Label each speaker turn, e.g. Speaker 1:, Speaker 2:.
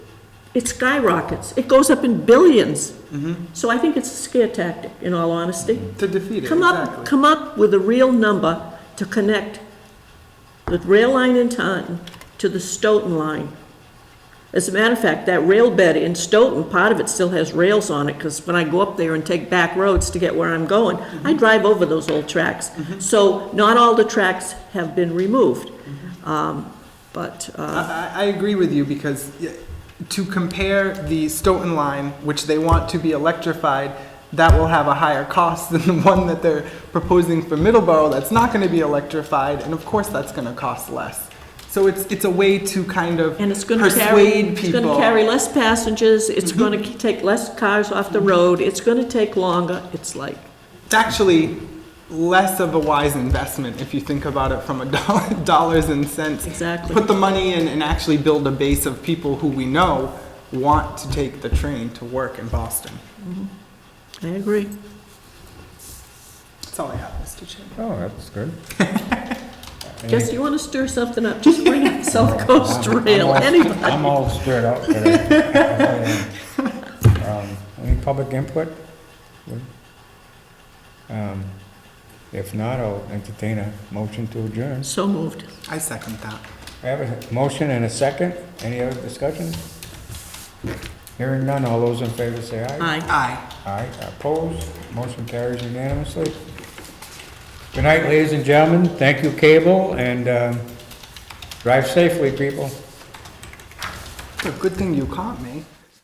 Speaker 1: it skyrockets. It goes up in billions. So I think it's a scare tactic, in all honesty.
Speaker 2: To defeat it,
Speaker 1: Come up,
Speaker 2: Mm-hmm. exactly.
Speaker 1: come up with a real number to connect the rail line in Taunton to the Stoughton line. As a matter of fact, that rail bed in Stoughton, part of it still has rails on it, because when I go up there and take back roads to get where I'm going, I drive over those old tracks. So not all the tracks have been removed. Um, But, uh,
Speaker 2: I, I I agree with you because y- to compare the Stoughton line, which they want to be electrified, that will have a higher cost than the one that they're proposing for Middleborough that's not going to be electrified, and of course that's going to cost less. So it's, it's a way to kind of
Speaker 1: and it's gonna carry,
Speaker 2: persuade
Speaker 1: it's gonna
Speaker 2: people. Mm-hmm.
Speaker 1: carry less passengers, it's gonna k- take less cars off the road, it's gonna take longer, it's like,
Speaker 2: It's actually less of a wise investment if you think about it from a dollar, dollars and cents.
Speaker 1: Exactly.
Speaker 2: Put the money in and actually build a base of people who we know want to take the train to work in Boston.
Speaker 1: I agree.
Speaker 2: That's all I have, Mr. Chairman.
Speaker 3: Oh, that's good.
Speaker 1: Jess, you want to stir something up, just bring up South Coast
Speaker 3: I'm- I'm
Speaker 1: Rail,
Speaker 3: all-
Speaker 1: anybody.
Speaker 3: I'm all stirred up today. Um, Any public input? Um, If not, I'll entertain a motion to adjourn.
Speaker 1: So moved.
Speaker 2: I second that.
Speaker 3: I have a motion and a second. Any other discussion? Hearing none, all those in favor say aye.
Speaker 1: Aye.
Speaker 2: Aye.
Speaker 3: Aye, opposed, motion carries unanimously. Good night, ladies and gentlemen. Thank you, Cable, and um, drive safely, people.
Speaker 2: Good thing you caught me.